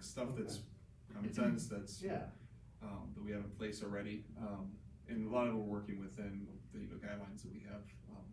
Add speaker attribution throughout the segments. Speaker 1: stuff that's common sense, that's,
Speaker 2: Yeah,
Speaker 1: um, that we have in place already. Um, and a lot of it we're working within the, you know, guidelines that we have, um,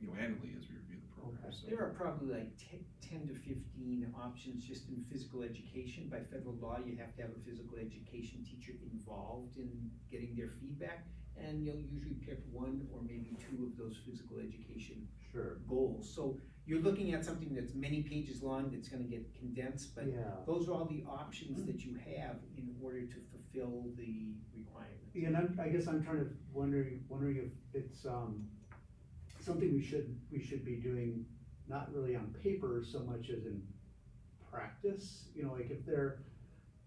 Speaker 1: you know, annually as we review the program, so.
Speaker 3: There are probably like te- ten to fifteen options just in physical education. By federal law, you have to have a physical education teacher involved in getting their feedback. And you'll usually pick one or maybe two of those physical education
Speaker 2: sure,
Speaker 3: goals. So you're looking at something that's many pages long, that's gonna get condensed, but
Speaker 2: yeah.
Speaker 3: those are all the options that you have in order to fulfill the requirement.
Speaker 2: Yeah, And I'm, I guess I'm trying to wondering, wondering if it's, um, something we should, we should be doing, not really on paper so much as in practice, you know, like if they're,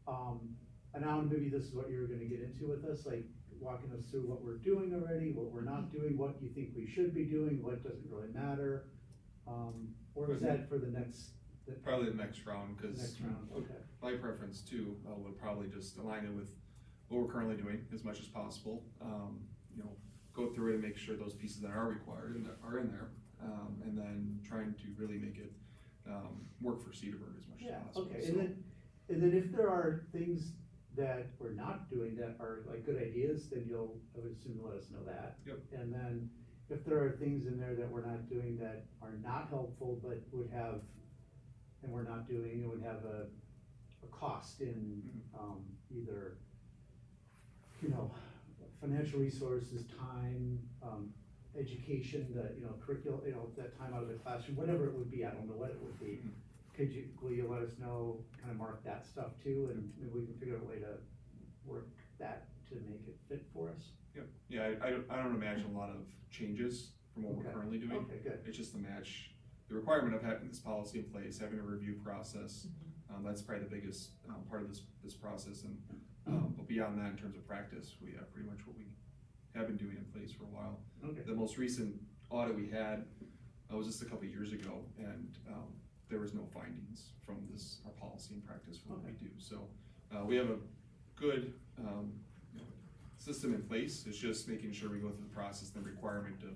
Speaker 2: um, and now maybe this is what you were gonna get into with us, like walking us through what we're doing already, what we're not doing, what you think we should be doing, what doesn't really matter. Um, or is that for the next, the
Speaker 1: Probably the next round, cause
Speaker 2: next round, okay,
Speaker 1: my preference too, uh, would probably just align it with what we're currently doing as much as possible. Um, you know, go through it and make sure those pieces that are required and that are in there, um, and then trying to really make it, um, work for Cedarburg as much as
Speaker 2: yeah,
Speaker 1: possible.
Speaker 2: okay,
Speaker 1: So-
Speaker 2: and then, and then if there are things that we're not doing that are like good ideas, then you'll, I would assume, let us know that.
Speaker 1: Yep.
Speaker 2: And then if there are things in there that we're not doing that are not helpful, but would have, and we're not doing, it would have a, a cost in, um, either, you know, financial resources, time, um, education, the, you know, curriculum, you know, that time out of the classroom, whatever it would be, I don't know what it would be.
Speaker 1: Mhm.
Speaker 2: Could you, will you let us know, kind of mark that stuff too, and maybe we can figure out a way to work that to make it fit for us?
Speaker 1: Yep, yeah, I, I don't, I don't imagine a lot of changes from what
Speaker 2: Okay. Oh.
Speaker 1: we're currently doing.
Speaker 2: Okay, good,
Speaker 1: It's just the match, the requirement of having this policy in place, having a review process. Um, that's probably the biggest, um, part of this, this process and, um, but beyond that, in terms of practice, we have pretty much what we have been doing in place for a while.
Speaker 2: okay,
Speaker 1: The most recent audit we had, uh, was just a couple of years ago and, um, there was no findings from this, our policy and practice for what we do. So, uh, we have a good, um, you know, system in place. It's just making sure we go through the process, the requirement of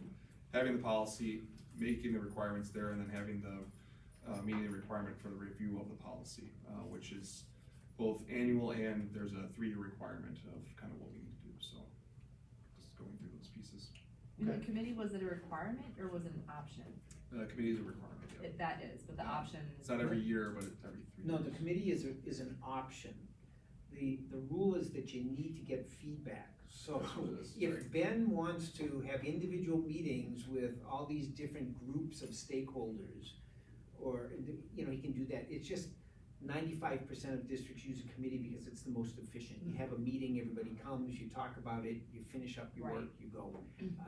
Speaker 1: having the policy, making the requirements there, and then having the, uh, meeting the requirement for the review of the policy, uh, which is both annual and there's a three-year requirement of kind of what we need to do, so just going through those pieces.
Speaker 4: And
Speaker 2: Okay.
Speaker 4: the committee, was it a requirement or was it an option?
Speaker 1: The committee is a requirement, yeah.
Speaker 4: If that is, but the
Speaker 1: Yeah.
Speaker 4: option.
Speaker 1: It's not every year, but it's every three.
Speaker 3: No, the
Speaker 1: years.
Speaker 3: committee is, a- is an option. The, the rule is that you need to get feedback. So
Speaker 1: That's what it is,
Speaker 3: if Ben wants to have individual meetings with all these different groups of stakeholders, or, you know, he can do that. It's just ninety-five percent of districts use a committee because it's the most efficient. You have a meeting, everybody comes, you talk about it, you finish up your work, you go. Um,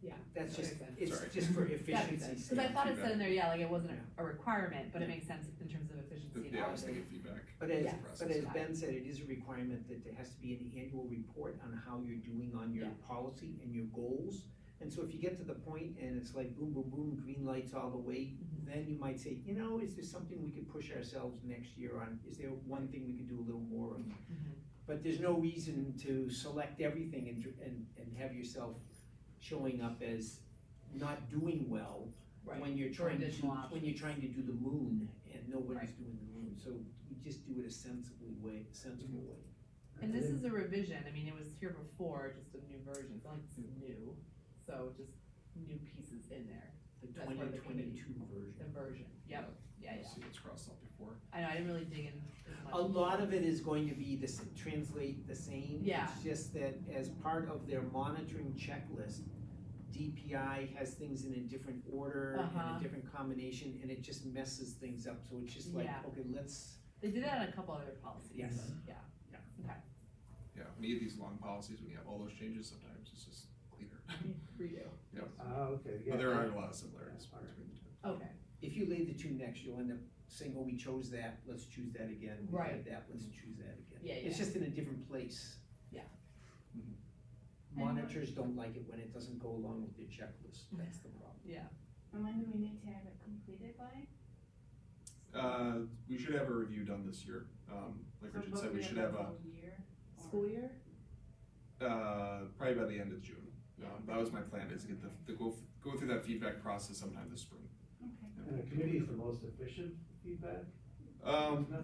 Speaker 4: Mm-hmm. Yeah,
Speaker 3: That's
Speaker 4: that
Speaker 3: just,
Speaker 4: makes sense.
Speaker 3: it's
Speaker 1: Sorry.
Speaker 3: just for
Speaker 4: That makes
Speaker 3: efficiency.
Speaker 4: sense, cause I thought it said in there, yeah, like it wasn't
Speaker 3: Yeah.
Speaker 4: a requirement, but it
Speaker 1: Yeah.
Speaker 4: makes sense in terms of efficiency and
Speaker 1: Yeah, I was
Speaker 4: option.
Speaker 1: thinking feedback.
Speaker 3: But as,
Speaker 4: Yeah.
Speaker 3: but as
Speaker 1: Process.
Speaker 3: Ben said, it is a requirement that there has to be an annual report on how you're doing on your
Speaker 4: Yeah.
Speaker 3: policy and your goals. And so if you get to the point and it's like boom, boom, boom, green lights all the way,
Speaker 4: Mhm.
Speaker 3: then you might say, you know, is there something we could push ourselves next year on? Is there one thing we could do a little more of?
Speaker 4: Mm-hmm.
Speaker 3: But there's no reason to select everything and, dr- and, and have yourself showing up as not doing well
Speaker 4: Right,
Speaker 3: when you're trying to,
Speaker 4: additional
Speaker 3: when you're trying to do the moon and nobody's
Speaker 4: Right.
Speaker 3: doing the moon, so you just do it a sensibly way, sensible way.
Speaker 4: and this is a revision, I mean, it was here before, just a new version, it's not like this is new, so just new pieces in there,
Speaker 3: The
Speaker 4: That's part
Speaker 3: twenty
Speaker 4: of the committee.
Speaker 3: twenty-two version.
Speaker 4: the version, yep, yeah, yeah.
Speaker 1: See what's crossed out before.
Speaker 4: I know, I didn't really dig in as much.
Speaker 3: A lot of it is going to be the, s- translate the same.
Speaker 4: Yeah.
Speaker 3: It's just that as part of their monitoring checklist, DPI has things in a different order and
Speaker 4: Uh-huh.
Speaker 3: a different combination, and it just messes things up, so it's just like,
Speaker 4: Yeah.
Speaker 3: okay, let's,
Speaker 4: They did that on a couple other policies,
Speaker 3: Yes.
Speaker 4: but, yeah,
Speaker 1: Yeah, when you get these long policies, when you have all those changes, sometimes it's just cleaner.
Speaker 4: redo,
Speaker 1: Yeah,
Speaker 2: ah, okay, yeah.
Speaker 1: but there are a lot of similarities
Speaker 2: Yeah.
Speaker 1: between the two.
Speaker 4: okay,
Speaker 3: if you lay the two next, you'll end up saying, oh, we chose that, let's choose that again, we
Speaker 4: Right.
Speaker 3: had that, let's choose that again.
Speaker 4: Yeah,
Speaker 3: It's
Speaker 4: yeah.
Speaker 3: just in a different place. Mm-hmm.
Speaker 4: Yeah. uh,
Speaker 1: Mhm.
Speaker 3: Monitors don't like it when it doesn't go along with their checklist, that's
Speaker 4: Mhm.
Speaker 3: the problem.
Speaker 4: yeah,
Speaker 5: And when do we need to have it completed by?
Speaker 1: Uh, we should have a review done this year. Um, like
Speaker 5: So
Speaker 1: Richard
Speaker 5: both
Speaker 1: said, we should have a,
Speaker 5: whole Year? or-
Speaker 4: school year?
Speaker 1: uh, probably by the end of June. Um, that was my plan, is to get the, to go, go through that feedback process sometime this spring.
Speaker 5: Okay.
Speaker 2: And the committee is the most efficient feedback,
Speaker 1: Um,
Speaker 2: isn't it?